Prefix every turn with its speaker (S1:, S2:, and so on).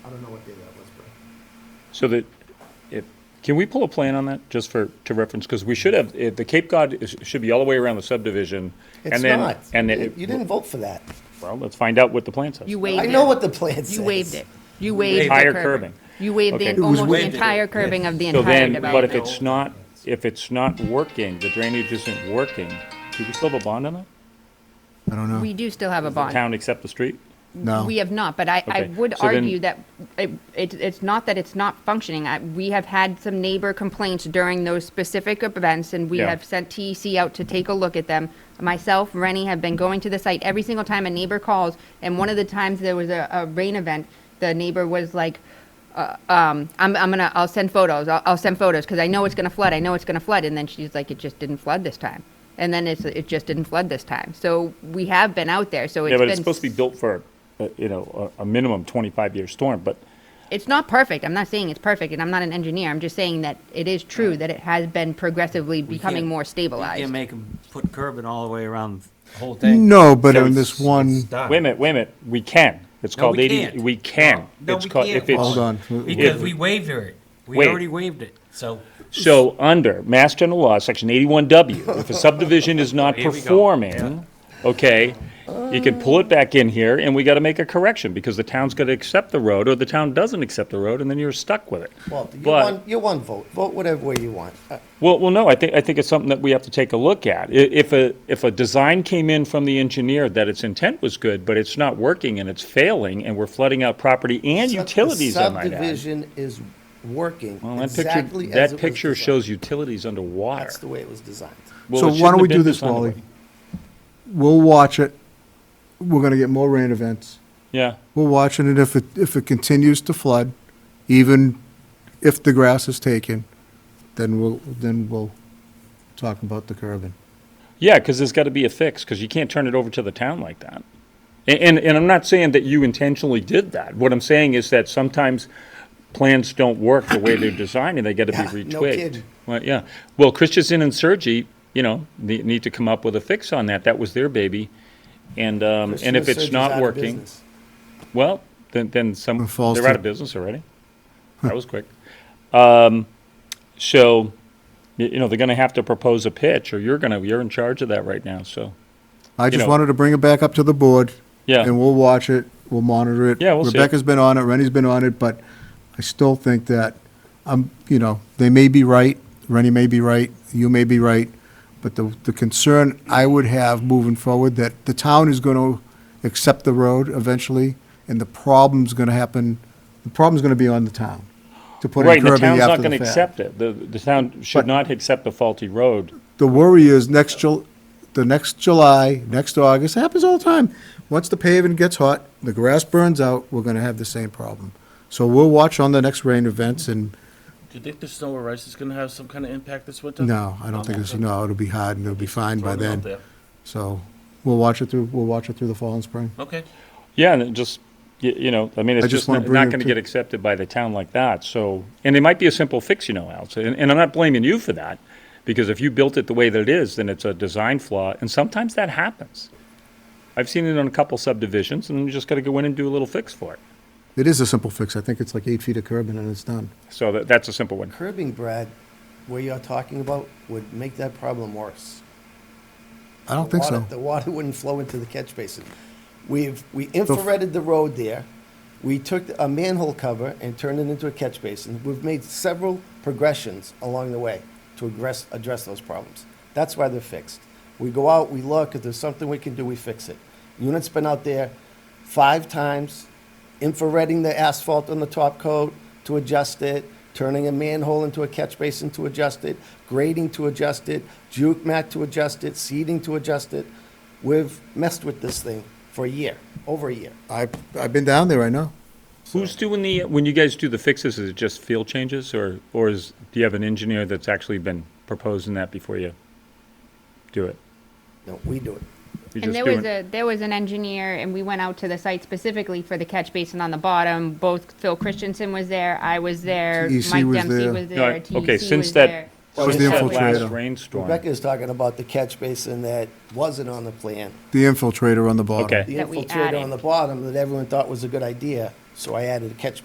S1: don't know what day that was, but
S2: So that, if, can we pull a plan on that, just for, to reference, because we should have, if the Cape Cod is- should be all the way around the subdivision.
S1: it's
S2: and then-
S1: not.
S2: And
S1: You- You
S2: then,
S1: didn't vote for that.
S2: well, let's find out what the plan says.
S3: You waived it.
S1: I know what the plan says.
S3: You waived it. You waived the
S2: Entire
S3: curving.
S2: curbing.
S3: You waived
S2: Okay. It
S3: the,
S2: was
S3: almost the
S4: waived.
S3: entire curbing of the
S2: So
S3: entire
S2: then, but if
S3: development.
S2: it's not, if it's not working, the drainage isn't working, do we still have a bond on it?
S4: I don't know.
S3: We do still have a bond.
S2: Town accept the street?
S4: No.
S3: We have not, but I, I
S2: Okay.
S3: would
S2: So then-
S3: argue that it, it- it's not that it's not functioning. I- We have had some neighbor complaints during those specific events, and we
S2: Yeah.
S3: have sent TEC out to take a look at them. Myself, Rennie have been going to the site every single time a neighbor calls, and one of the times there was a, a rain event, the neighbor was like, uh, um, I'm, I'm gonna, I'll send photos, I'll, I'll send photos, because I know it's gonna flood, I know it's gonna flood, and then she's like, it just didn't flood this time. And then it's, it just didn't flood this time, so we have been out there, so it's
S2: Yeah,
S3: been.
S2: but it's supposed to be built for, uh, you know, a a minimum 25-year storm, but
S3: It's not perfect, I'm not saying it's perfect, and I'm not an engineer, I'm just saying that it is true that it has been progressively becoming
S5: can't-
S3: more
S5: You
S3: stabilized.
S5: can't make them put curbing all the way around the whole thing.
S4: No, but
S2: So
S4: on
S2: it's-
S4: this one,
S2: wait a minute, wait a minute, we can. It's
S5: No,
S2: called
S5: we
S2: 80,
S5: can't.
S2: we can.
S5: No,
S2: It's
S5: we
S2: called-
S5: can't.
S2: if it's-
S4: Hold on.
S5: Because
S2: If-
S5: we waived it. We
S2: Wait.
S5: already waived it, so.
S2: So, under Mass General Law, Section 81W, if a subdivision is not
S5: Here we go.
S2: performing, okay, you can pull it back in here, and we got to make a correction, because the town's going to accept the road, or the town doesn't accept the road, and then you're stuck with it.
S1: Walter, you
S2: But-
S1: won, you won vote. Vote whatever way you want. Uh,
S2: Well, well, no, I think, I think it's something that we have to take a look at. I- If a, if a design came in from the engineer that its intent was good, but it's not working and it's failing, and we're flooding out property and
S1: sub-
S2: utilities, I might add.
S1: The subdivision is working
S2: Well, that
S1: exactly as
S2: picture,
S1: it
S2: that
S1: was
S2: picture
S1: designed.
S2: shows utilities underwater.
S1: That's the way it was designed.
S2: Well,
S4: So
S2: it
S4: why
S2: shouldn't
S4: don't
S2: have
S4: we
S2: been
S4: do this,
S2: designed that
S4: Wally?
S2: way.
S4: we'll watch it. We're gonna get more rain events.
S2: Yeah,
S4: We'll watch it, and if it, if it continues to flood, even if the grass is taken, then we'll, then we'll talk about the curbing.
S2: yeah, because there's got to be a fix, because you can't turn it over to the town like that. And, and, and I'm not saying that you intentionally did that. What I'm saying is that sometimes plans don't work the way they're designed, and they got to
S1: Yeah,
S2: be
S1: no
S2: retwigged.
S1: kidding.
S2: Well, yeah. Well, Christensen and Sergi, you know, ne- need to come up with a fix on that. That was their baby, and um, and if
S1: Christian
S2: it's
S1: Surgeon's out
S2: not
S1: of
S2: working,
S1: business.
S2: well, then then some
S4: It falls
S2: they're out
S4: to-
S2: of business already. That was quick. Um, so, y- you know, they're going to have to propose a pitch, or you're going to you're in charge of that right now. So.
S4: I just
S2: know-
S4: wanted to bring it back up to the board.
S2: Yeah.
S4: And we'll watch it, we'll monitor it.
S2: Yeah, we'll see it.
S4: Rebecca's been on it, Rennie's been on it, but I still think that, um, you know, they may be right, Rennie may be right, you may be right, but the, the concern I would have moving forward, that the town is gonna accept the road eventually, and the problem's gonna happen, the problem's gonna be on the town, to put in
S2: Right, the
S4: curbing
S2: town's not
S4: after
S2: going to
S4: the
S2: accept
S4: fact.
S2: it. The, the town should
S4: But-
S2: not accept a faulty road.
S4: The worry is next Jul, the next July, next August, it happens all the time. Once the paving gets hot, the grass burns out, we're gonna have the same problem. So we'll watch on the next rain events and,
S6: Do you think the snow or ice is going to have some kind of impact this winter?
S4: no, I don't think it's, no, it'll be hot and it'll be fine by
S6: Throwing it out
S4: then.
S6: there.
S4: So we'll watch it through, we'll watch it through the fall and spring.
S6: Okay.
S2: Yeah, and it just, you, you know, I mean, it's
S4: I just
S2: just
S4: wanna
S2: not
S4: bring it
S2: going to
S4: to-
S2: get accepted by the town like that, so, and it might be a simple fix, you know, Al, so- and, and I'm not blaming you for that, because if you built it the way that it is, then it's a design flaw, and sometimes that happens. I've seen it on a couple subdivisions, and you just got to go in and do a little fix for it.
S4: It is a simple fix. I think it's like eight feet of curbing and it's done.
S2: So that, that's a simple one.
S1: Curbing, Brad, where you're talking about would make that problem worse.
S4: I don't
S1: The
S4: think
S1: water-
S4: so.
S1: The water wouldn't flow into the catch basin. We've, we infrareded the road there. We took a manhole cover and turned it into a catch basin. We've made several progressions along the way to address, address those problems. That's why they're fixed. We go out, we look, if there's something we can do, we fix it. Unit's been out there five times, infrareding the asphalt on the top coat to adjust it, turning a manhole into a catch basin to adjust it, grading to adjust it, juke mat to adjust it, seeding to adjust it. We've messed with this thing for a year, over a year.
S4: I've, I've been down there, I know.
S2: Who's doing the, when you guys do the fixes, is it just field changes, or, or is, do you have an engineer that's actually been proposing that before you do it?
S1: No, we do it.
S2: You're
S3: And
S2: just
S3: there was
S2: doing-
S3: a, there was an engineer, and we went out to the site specifically for the catch basin on the bottom. Both Phil Christensen was there, I
S5: E
S3: was there,
S4: TEC
S3: Mike
S4: was
S3: Dempsey
S4: there.
S3: was
S2: No, I-
S3: there, TEC was there.
S2: okay, since that,
S1: Well,
S2: since
S1: it's
S2: that
S1: the
S2: last
S4: infiltrator.
S2: rainstorm.
S1: Rebecca is talking about the catch basin that wasn't on the plan.
S4: The infiltrator on the bottom.
S2: Okay.
S1: The
S3: That we
S1: infiltrator on
S3: added.
S1: the bottom that everyone thought was a good idea, so I added a catch